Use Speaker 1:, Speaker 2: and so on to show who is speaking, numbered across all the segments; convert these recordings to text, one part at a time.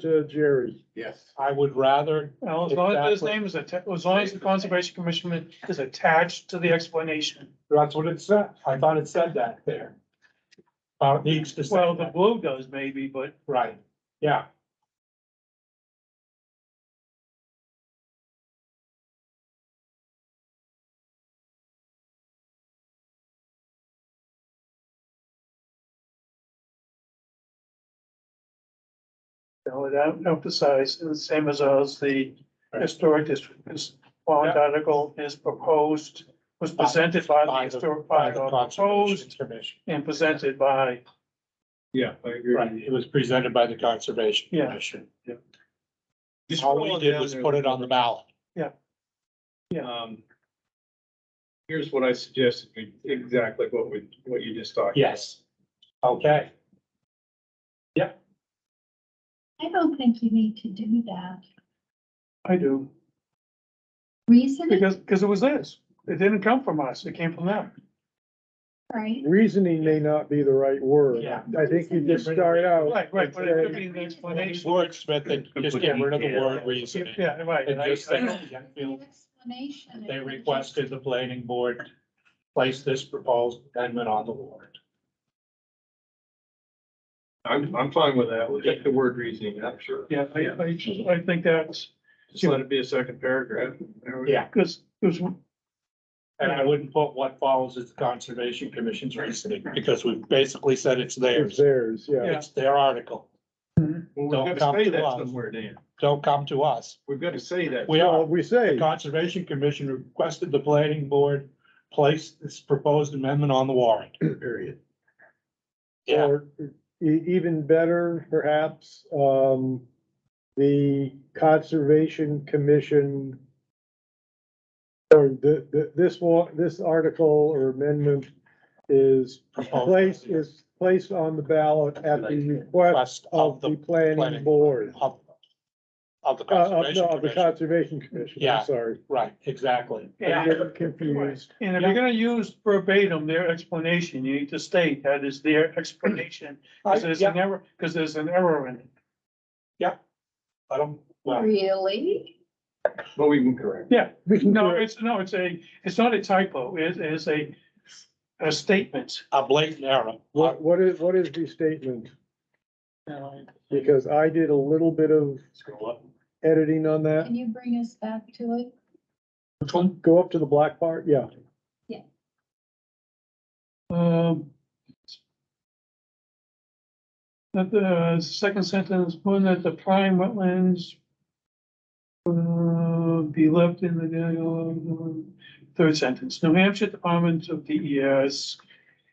Speaker 1: to Jerry.
Speaker 2: Yes.
Speaker 1: I would rather,
Speaker 3: Well, as long as his
Speaker 1: Exactly.
Speaker 3: name is attached, as long as the conservation commission is attached to the explanation.
Speaker 1: that's what it said. I thought it said that there. Uh, it needs to say
Speaker 3: Well, the
Speaker 1: that.
Speaker 3: blue does maybe, but
Speaker 1: right, yeah.
Speaker 3: you know, it emphasized, the same as us, the historic district, this bond article is proposed, was presented by the
Speaker 1: By the-
Speaker 3: historic, by
Speaker 1: By
Speaker 3: the
Speaker 1: the Conservation
Speaker 3: proposed
Speaker 1: Commission.
Speaker 3: and presented by,
Speaker 2: Yeah, I
Speaker 1: Right,
Speaker 2: agree.
Speaker 1: it was presented by the Conservation
Speaker 3: Yeah.
Speaker 1: Commission.
Speaker 2: Just
Speaker 1: All we
Speaker 2: scrolling
Speaker 1: did
Speaker 2: down
Speaker 1: was
Speaker 2: there,
Speaker 1: put it on the ballot.
Speaker 2: um, Here's what I suggested, we- exactly what we, what you just talked.
Speaker 1: Yes. Okay,
Speaker 4: I don't think you need to do that.
Speaker 3: I do,
Speaker 4: Reasoning,
Speaker 3: because, because it was this. It didn't come from us, it came from them.
Speaker 4: right?
Speaker 5: Reasoning may not be the right word.
Speaker 1: Yeah.
Speaker 5: I think you just start out,
Speaker 3: Right, right, but it could be an explanation.
Speaker 1: wordsmith, and just get rid of the word reasoning.
Speaker 3: Yeah, right.
Speaker 1: And just
Speaker 3: I- I-
Speaker 1: say, yeah, feel-
Speaker 4: The Explanation.
Speaker 1: they requested the planning board place this proposed amendment on the warrant.
Speaker 2: I'm, I'm fine with that, we'll get the word reasoning, I'm sure.
Speaker 3: Yeah, I, I, I think that's,
Speaker 2: Just let it be a second paragraph. There we go.
Speaker 1: Yeah.
Speaker 3: because, because
Speaker 1: And I wouldn't put what follows as the Conservation Commission's reasoning, because we've basically said it's
Speaker 5: it's
Speaker 1: theirs.
Speaker 5: theirs, yeah.
Speaker 1: It's their article.
Speaker 2: Well,
Speaker 1: Don't
Speaker 2: we've got
Speaker 1: come
Speaker 2: to say
Speaker 1: to
Speaker 2: that
Speaker 1: us.
Speaker 2: somewhere, Dan.
Speaker 1: Don't come to us.
Speaker 2: We've got to say that.
Speaker 1: We
Speaker 5: Well,
Speaker 1: are,
Speaker 5: we
Speaker 1: the
Speaker 5: say,
Speaker 1: Conservation Commission requested the planning board place this proposed amendment on the warrant.
Speaker 2: Period.
Speaker 1: Yeah.
Speaker 5: or e- even better, perhaps, um, the Conservation Commission or the, the, this one, this article or amendment is
Speaker 1: Proposed.
Speaker 5: placed, is placed on the ballot at the request
Speaker 1: Request
Speaker 5: of the planning board.
Speaker 1: Of of the
Speaker 5: Uh, of,
Speaker 1: Conservation
Speaker 5: no, of the
Speaker 1: Commission,
Speaker 5: Conservation Commission,
Speaker 1: Yeah.
Speaker 5: I'm sorry.
Speaker 1: right, exactly.
Speaker 3: Yeah.
Speaker 5: I'm getting confused.
Speaker 3: And if you're gonna use verbatim their explanation, you need to state that is their explanation, because there's
Speaker 1: Yeah,
Speaker 3: an error, because there's an error in it.
Speaker 1: I don't, well,
Speaker 4: Really?
Speaker 2: But we can correct.
Speaker 5: We can
Speaker 3: No,
Speaker 5: do it.
Speaker 3: it's, no, it's a, it's not a typo, it is a, a statement.
Speaker 1: a blatant error.
Speaker 5: What, what is, what is the statement?
Speaker 3: Well,
Speaker 5: Because I did a little bit of
Speaker 1: Scroll up.
Speaker 5: editing on that.
Speaker 4: Can you bring us back to it?
Speaker 1: Which one?
Speaker 5: Go up to the black part, yeah.
Speaker 3: Um. That the second sentence, one that the prime wetlands. Uh, be left in the, uh, third sentence, New Hampshire Department of DES.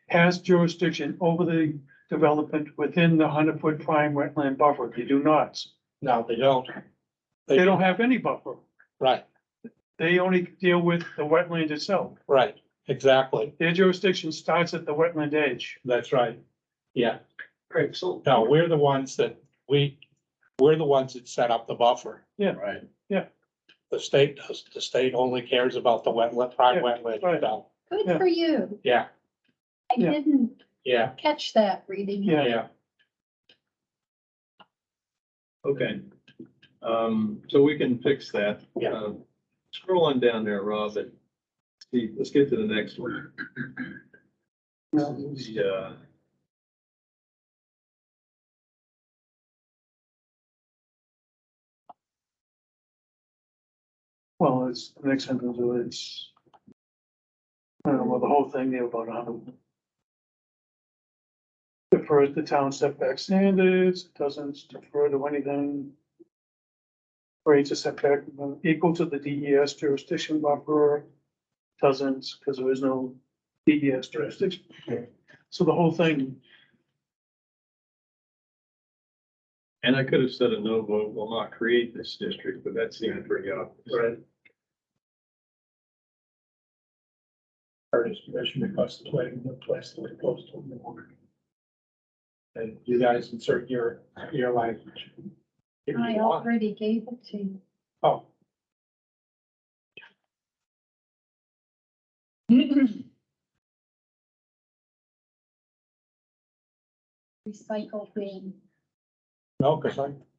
Speaker 3: Has jurisdiction over the development within the hundred foot prime wetland buffer, they do not,
Speaker 1: No, they don't.
Speaker 3: they don't have any buffer.
Speaker 1: Right,
Speaker 3: They only deal with the wetland itself,
Speaker 1: right, exactly.
Speaker 3: their jurisdiction starts at the wetland edge.
Speaker 1: That's right. Yeah,
Speaker 2: Great, so.
Speaker 1: no, we're the ones that, we, we're the ones that set up the buffer.
Speaker 2: Right.
Speaker 1: The state does, the state only cares about the wetland, prime
Speaker 3: Yeah,
Speaker 1: wetland
Speaker 3: right.
Speaker 1: itself.
Speaker 3: Yeah.
Speaker 4: Good for you.
Speaker 1: Yeah,
Speaker 4: I
Speaker 3: Yeah.
Speaker 4: didn't
Speaker 1: yeah,
Speaker 4: catch that reading.
Speaker 3: Yeah.
Speaker 1: yeah.
Speaker 2: Okay. Um, so we can fix that.
Speaker 1: Yeah.
Speaker 2: Um, Scroll on down there, Rob, and see, let's get to the next one. uh, Yeah.
Speaker 3: Well, it's, the next sentence is. I don't know, well, the whole thing, they have about a hundred. Defer the town setback standards, It doesn't defer to anything. Rates a setback equal to the DES jurisdiction buffer, doesn't, because there is no DES jurisdiction. So the whole thing,
Speaker 2: And I could have said a no vote will not create this district, but that seemed pretty obvious.
Speaker 1: Right. Curtis Commission requests the planning board place the proposed on the warrant. And you guys insert your, your language. If
Speaker 4: I
Speaker 1: you want.
Speaker 4: already gave it to you.
Speaker 1: Oh,
Speaker 4: Recycle thing.
Speaker 1: no, because I